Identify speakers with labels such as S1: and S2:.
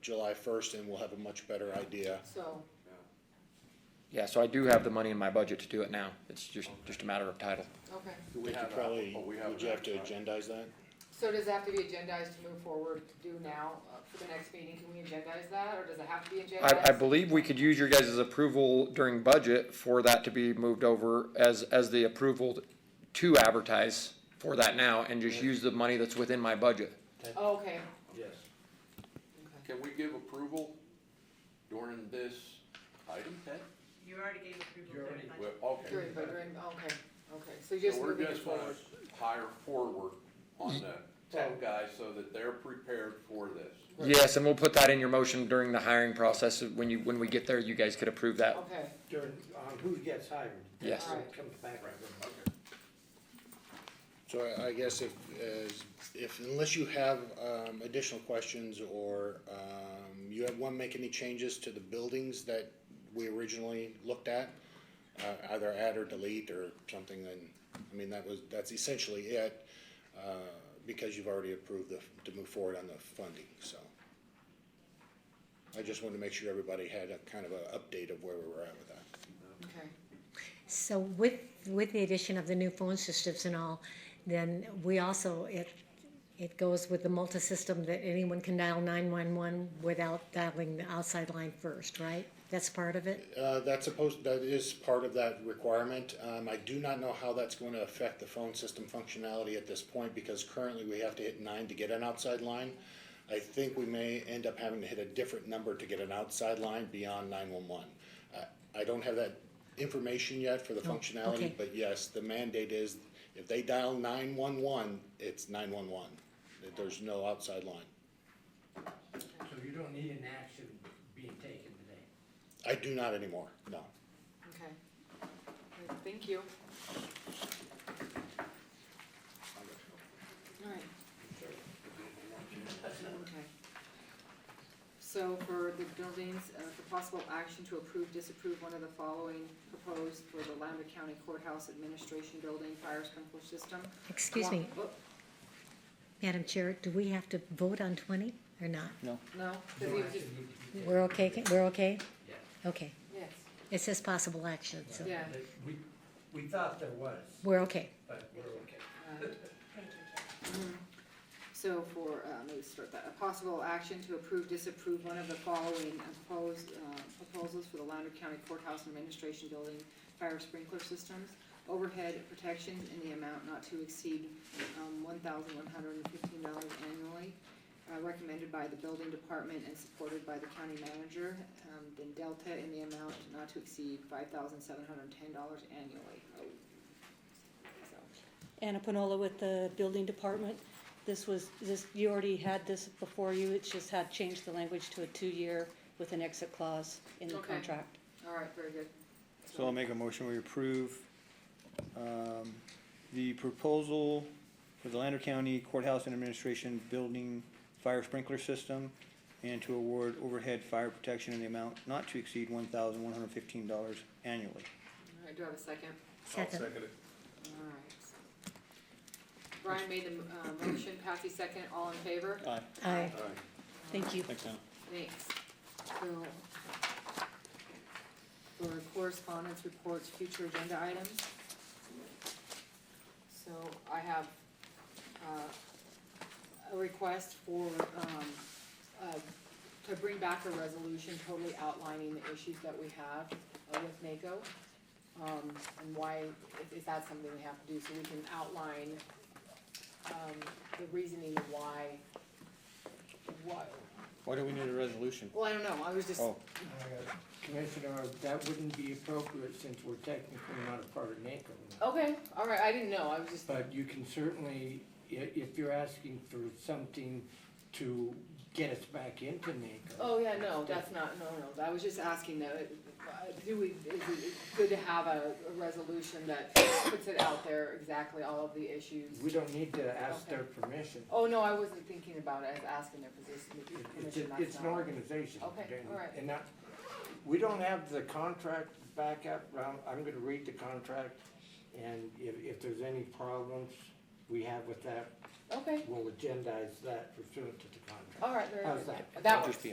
S1: July first, and we'll have a much better idea.
S2: So,
S3: Yeah, so I do have the money in my budget to do it now. It's just, just a matter of title.
S2: okay,
S4: Do
S1: I
S4: we
S1: think you
S4: have a-
S1: probably,
S4: oh, we have
S1: would
S4: an
S1: you have to
S4: action item.
S1: agendize that?
S2: so does it have to be agendized to move forward, to do now, uh, for the next meeting, can we agendize that, or does it have to be agendized?
S3: I, I believe we could use your guys' approval during budget for that to be moved over as, as the approval to advertise for that now and just use the money that's within my budget.
S2: Oh, Okay,
S5: Yes.
S2: okay,
S4: Can we give approval during this item, Ted?
S6: You already gave approval
S5: You
S6: to
S5: already-
S6: the budget.
S4: Well, okay.
S2: during, but during, okay, okay, so you're
S4: So
S2: just
S4: we're
S2: moving it
S4: just gonna
S2: forward, Oh.
S4: hire forward on the tech guys so that they're prepared for this.
S3: Yes, and we'll put that in your motion during the hiring process. When you, when we get there, you guys could approve that.
S2: okay,
S5: During, on who gets hired.
S3: Yes.
S5: That's what Comes back.
S1: So I, I guess if, as, if, unless you have, um, additional questions or, um, you have, wanna make any changes to the buildings that we originally looked at, uh, either add or delete or something, then, I mean, that was, that's essentially it, uh, because you've already approved the, to move forward on the funding, so. I just wanted to make sure everybody had a kind of a update of where we were at with that.
S2: okay.
S7: So with, with the addition of the new phone systems and all, then we also, it, it goes with the multi-system that anyone can dial nine-one-one without dialing the outside line first, right? That's part of it?
S1: Uh, that's supposed, that is part of that requirement. Um, I do not know how that's going to affect the phone system functionality at this point because currently we have to hit nine to get an outside line. I think we may end up having to hit a different number to get an outside line beyond nine-one-one. I, I don't have that information yet for the functionality,
S7: okay.
S1: but yes, the mandate is if they dial nine-one-one, it's nine-one-one. There's no outside line.
S5: So you don't need an action being taken today.
S1: I do not anymore, no.
S2: Okay. Good, Thank you. Alright. Okay. So for the buildings, uh, for possible action to approve, disapprove one of the following proposed for the Lander County Courthouse Administration Building Fire Sprinkler System. Oh,
S7: Excuse me,
S2: One-
S7: Madam Chair, do we have to vote on twenty or not?
S2: oh, No,
S5: No
S2: 'cause he was
S5: action
S2: just,
S5: needed to be taken.
S7: We're okay, we're okay?
S5: Yeah.
S7: Okay.
S2: yes,
S7: It says possible action, so
S2: Yeah.
S5: But We, we thought there was,
S7: we're okay.
S5: but we're okay.
S2: uh,
S6: Thank you, Jen.
S2: So for, uh, let me start that, a possible action to approve, disapprove one of the following proposed, uh, proposals for the Lander County Courthouse Administration Building Fire Sprinkler Systems, overhead protections in the amount not to exceed, um, one thousand one hundred and fifteen dollars annually, uh, recommended by the building department and supported by the county manager, um, then Delta in the amount not to exceed five thousand seven hundred and ten dollars annually. Oh. So,
S8: Anna Panola with the building department. This was, this, you already had this before you, it just had changed the language to a two-year with an exit clause in the
S2: Okay.
S8: contract.
S2: All right, very good.
S9: So I'll make a motion, we approve, um, the proposal for the Lander County Courthouse and Administration Building Fire Sprinkler System and to award overhead fire protection in the amount not to exceed one thousand one hundred fifteen dollars annually.
S2: All right, do I have a second?
S7: Second.
S2: All right. Brian made the uh, motion, Patsy second, all in favor?
S9: Aye.
S7: Aye.
S8: Thank you.
S9: Thanks, Anna.
S2: Thanks. So, for correspondence reports, future agenda items. So I have, uh, a request for, um, uh, to bring back a resolution totally outlining the issues that we have uh, with NACO. Um, and why, is, is that something we have to do, so we can outline, um, the reasoning why, why,
S9: Why do we need a resolution?
S2: well, I don't know, I was just,
S9: Oh,
S5: Uh, Commissioner, that wouldn't be appropriate since we're technically not a part of NACO.
S2: okay, all right, I didn't know, I was just,
S5: But you can certainly, i- if you're asking for something to get us back into NACO.
S2: oh, yeah, no, that's not, no, no, I was just asking though, it- uh, do we, is it good to have a, a resolution that puts it out there exactly all of the issues?
S5: We don't need to ask their permission.
S2: Oh, no, I wasn't thinking about it, I was asking their position,
S5: It's,
S2: permission,
S5: it's
S2: that's
S5: an
S2: not.
S5: organization.
S2: Okay,
S5: and-
S2: all right.
S5: And that, we don't have the contract back up, I'm, I'm gonna read the contract, and if, if there's any problems we have with that,
S2: Okay,
S5: we'll agendize that pursuant to the contract.
S2: all right, very
S5: How's
S2: good,
S5: that?
S2: that
S9: I'll
S2: works,
S9: just be